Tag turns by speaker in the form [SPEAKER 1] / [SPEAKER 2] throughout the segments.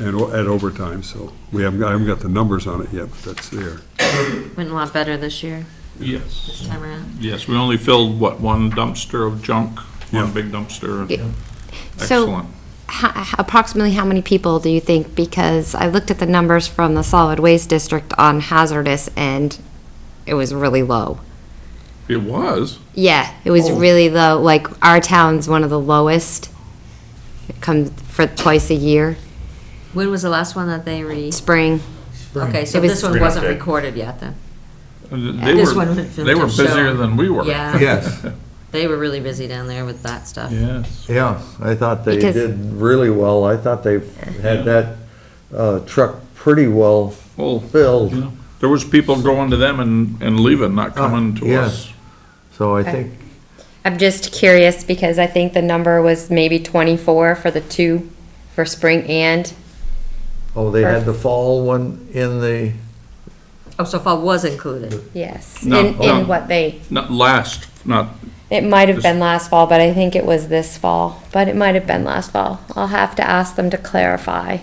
[SPEAKER 1] and o- at overtime, so we haven't, got- I haven't got the numbers on it yet, but that's there.
[SPEAKER 2] Went a lot better this year, this
[SPEAKER 3] Yes,
[SPEAKER 2] time around.
[SPEAKER 3] yes, we only filled, what, one dumpster of junk?
[SPEAKER 1] Yeah.
[SPEAKER 3] One big dumpster?
[SPEAKER 4] Yeah. So
[SPEAKER 3] Excellent.
[SPEAKER 4] ho- approximately how many people do you think? Because I looked at the numbers from the solid waste district on hazardous and it was really low.
[SPEAKER 3] It was?
[SPEAKER 4] Yeah, it was
[SPEAKER 3] Oh.
[SPEAKER 4] really low. Like our town's one of the lowest. It comes for twice a year,
[SPEAKER 2] When was the last one that they re,
[SPEAKER 4] spring.
[SPEAKER 2] okay, so
[SPEAKER 4] It was-
[SPEAKER 2] this one wasn't recorded yet then?
[SPEAKER 3] They
[SPEAKER 2] this
[SPEAKER 3] were,
[SPEAKER 2] one we filmed
[SPEAKER 3] they were
[SPEAKER 2] to show.
[SPEAKER 3] busier than we were.
[SPEAKER 2] Yeah.
[SPEAKER 5] Yes.
[SPEAKER 2] They were really busy down there with that stuff.
[SPEAKER 3] Yes.
[SPEAKER 5] Yeah, I thought they
[SPEAKER 4] Because-
[SPEAKER 5] did really well. I thought they had that uh, truck pretty well
[SPEAKER 3] Well, you
[SPEAKER 5] filled.
[SPEAKER 3] know, there was people going to them and, and leaving, not coming to
[SPEAKER 5] yes.
[SPEAKER 3] us.
[SPEAKER 5] So I think,
[SPEAKER 4] I'm just curious because I think the number was maybe 24 for the two for spring and
[SPEAKER 5] oh, they had the fall one in the,
[SPEAKER 2] Oh, so far was included.
[SPEAKER 4] yes,
[SPEAKER 3] No,
[SPEAKER 4] in,
[SPEAKER 3] no.
[SPEAKER 4] in what they
[SPEAKER 3] Not last, not, uh,
[SPEAKER 4] It might have
[SPEAKER 3] This-
[SPEAKER 4] been last fall, but I think it was this fall. But it might have been last fall. I'll have to ask them to clarify.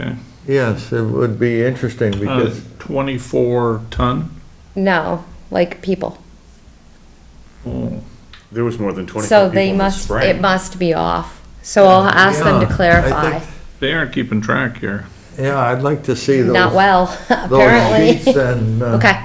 [SPEAKER 3] okay.
[SPEAKER 5] yes, it would be interesting
[SPEAKER 3] Uh,
[SPEAKER 5] because,
[SPEAKER 3] Twenty-four ton?
[SPEAKER 4] No, like people.
[SPEAKER 3] Oh,
[SPEAKER 6] There was more than 24
[SPEAKER 4] So
[SPEAKER 6] people
[SPEAKER 4] they
[SPEAKER 6] in the
[SPEAKER 4] must,
[SPEAKER 6] spring.
[SPEAKER 4] it must be off. So I'll ask them
[SPEAKER 5] Yeah,
[SPEAKER 4] to
[SPEAKER 5] I
[SPEAKER 4] clarify.
[SPEAKER 5] think-
[SPEAKER 3] They aren't keeping track here.
[SPEAKER 5] yeah, I'd like to see those.
[SPEAKER 4] Not well,
[SPEAKER 5] Those sheets
[SPEAKER 4] apparently.
[SPEAKER 5] and, uh,
[SPEAKER 4] Okay,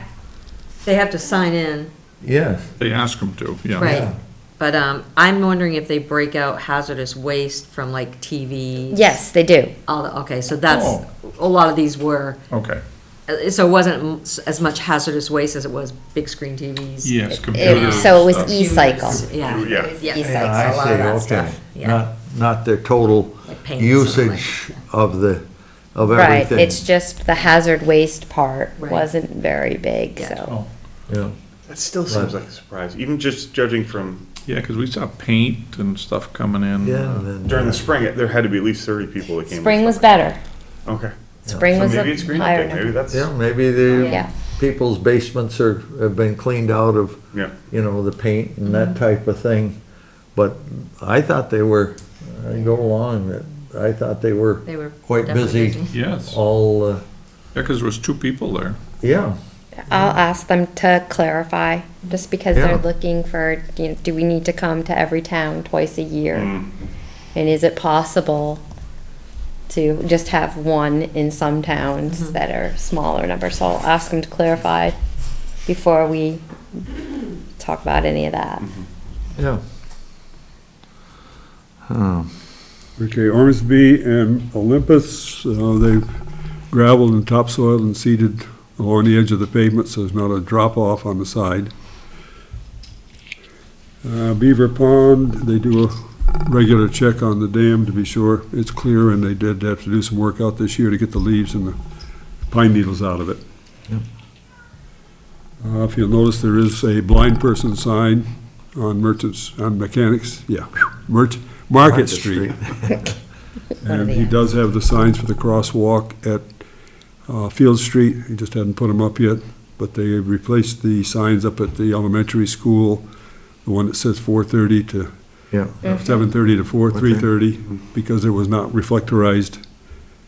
[SPEAKER 2] They have to sign in,
[SPEAKER 5] yes.
[SPEAKER 3] They ask them to, yeah.
[SPEAKER 2] right? But um, I'm wondering if they break out hazardous waste from like TV.
[SPEAKER 4] yes, they do.
[SPEAKER 2] All the, okay, so that's,
[SPEAKER 3] Oh.
[SPEAKER 2] a lot of these were,
[SPEAKER 3] Okay.
[SPEAKER 2] uh, so it wasn't m- s- as much hazardous waste as it was big screen TVs.
[SPEAKER 3] Yes,
[SPEAKER 4] It-
[SPEAKER 3] computers.
[SPEAKER 4] So it
[SPEAKER 3] stuff.
[SPEAKER 4] was e-cycle.
[SPEAKER 2] Yeah.
[SPEAKER 6] Yeah.
[SPEAKER 2] Yes,
[SPEAKER 5] Yeah,
[SPEAKER 2] a lot of that
[SPEAKER 5] I see, okay.
[SPEAKER 2] stuff, yeah.
[SPEAKER 5] Not, not the total
[SPEAKER 2] Like paints and all that,
[SPEAKER 5] usage of the, of
[SPEAKER 4] Right,
[SPEAKER 5] everything.
[SPEAKER 4] it's just the hazard waste part
[SPEAKER 2] Right.
[SPEAKER 4] wasn't very big, so.
[SPEAKER 5] Yeah.
[SPEAKER 6] That still seems like a surprise, even just judging from
[SPEAKER 3] Yeah, because we saw paint and stuff coming in.
[SPEAKER 5] Yeah, and then-
[SPEAKER 6] during the spring, it- there had to be at least 30 people that came.
[SPEAKER 4] Spring was better.
[SPEAKER 6] Okay.
[SPEAKER 4] Spring
[SPEAKER 6] So
[SPEAKER 4] was a
[SPEAKER 6] maybe it's green
[SPEAKER 4] higher
[SPEAKER 6] update, maybe
[SPEAKER 4] number.
[SPEAKER 6] that's,
[SPEAKER 5] Yeah, maybe the
[SPEAKER 4] Yeah.
[SPEAKER 5] people's basements are, have been cleaned out of,
[SPEAKER 6] yeah.
[SPEAKER 5] you know, the paint and that
[SPEAKER 2] Mm-hmm.
[SPEAKER 5] type of thing. But I thought they were, I go along, that I thought they were
[SPEAKER 2] They were
[SPEAKER 5] quite
[SPEAKER 2] definitely
[SPEAKER 5] busy,
[SPEAKER 3] Yes, yeah,
[SPEAKER 5] all, uh,
[SPEAKER 3] because there was two people there.
[SPEAKER 5] yeah.
[SPEAKER 4] I'll ask them to clarify, just because
[SPEAKER 5] Yeah.
[SPEAKER 4] they're looking for, you know, do we need to come to every town twice a year? And is it possible to just have one in some towns that are smaller numbers? So I'll ask them to clarify before we talk about any of that.
[SPEAKER 5] Yeah.
[SPEAKER 1] Okay, Ormsby and Olympus, uh, they've gravelled and topsoiled and seeded along the edge of the pavement, so there's not a drop-off on the side. Uh, Beaver Pond, they do a regular check on the dam to be sure it's clear, and they did have to do some work out this year to get the leaves and the pine needles out of it.
[SPEAKER 5] Yep.
[SPEAKER 1] Uh, If you'll notice, there is a blind person sign on Merchants, on Mechanics, yeah, Merch, Market Street.
[SPEAKER 4] One of
[SPEAKER 1] And
[SPEAKER 4] the
[SPEAKER 1] he
[SPEAKER 4] ends.
[SPEAKER 1] does have the signs for the crosswalk at uh, Field Street. He just hadn't put them up yet, but they replaced the signs up at the elementary school, the one that says 4:30 to,
[SPEAKER 5] Yeah,
[SPEAKER 1] 7:30 to 4,
[SPEAKER 5] Okay. Mm-hmm.
[SPEAKER 1] 3:30, because it was not reflectorized,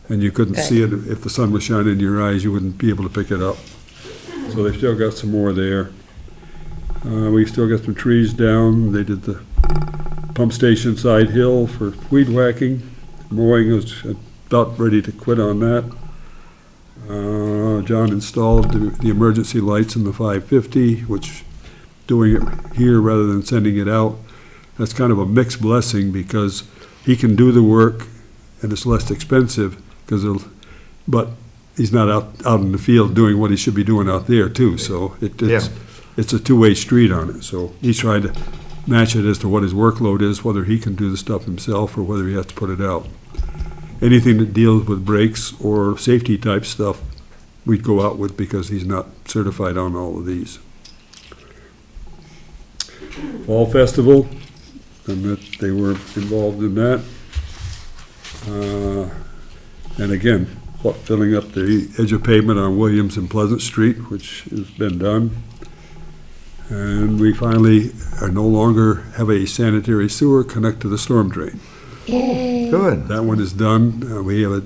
[SPEAKER 1] and you couldn't
[SPEAKER 4] Good.
[SPEAKER 1] see it. If the sun was shining in your eyes, you wouldn't be able to pick it up. So they've still got some more there. Uh, We still got some trees down. They did the pump station side hill for weed whacking. Mowing is about ready to quit on that. Uh, John installed the the emergency lights in the 550, which doing it here rather than sending it out, that's kind of a mixed blessing because he can do the work and it's less expensive because it'll, but he's not out, out in the field doing what he should be doing out there too, so it, it's, it's a two-way street on it, so he's trying to match it as to what his workload is, whether he can do the stuff himself or whether he has to put it out. Anything that deals with brakes or safety type stuff, we'd go out with because he's not certified on all of these. Fall Festival, and that they were involved in that. Uh, And again, what- filling up the edge of pavement on Williams and Pleasant Street, which has been done. And we finally are no longer have a sanitary sewer connect to the storm drain.
[SPEAKER 4] Yay.
[SPEAKER 5] good.
[SPEAKER 1] That one is done. Uh, We have a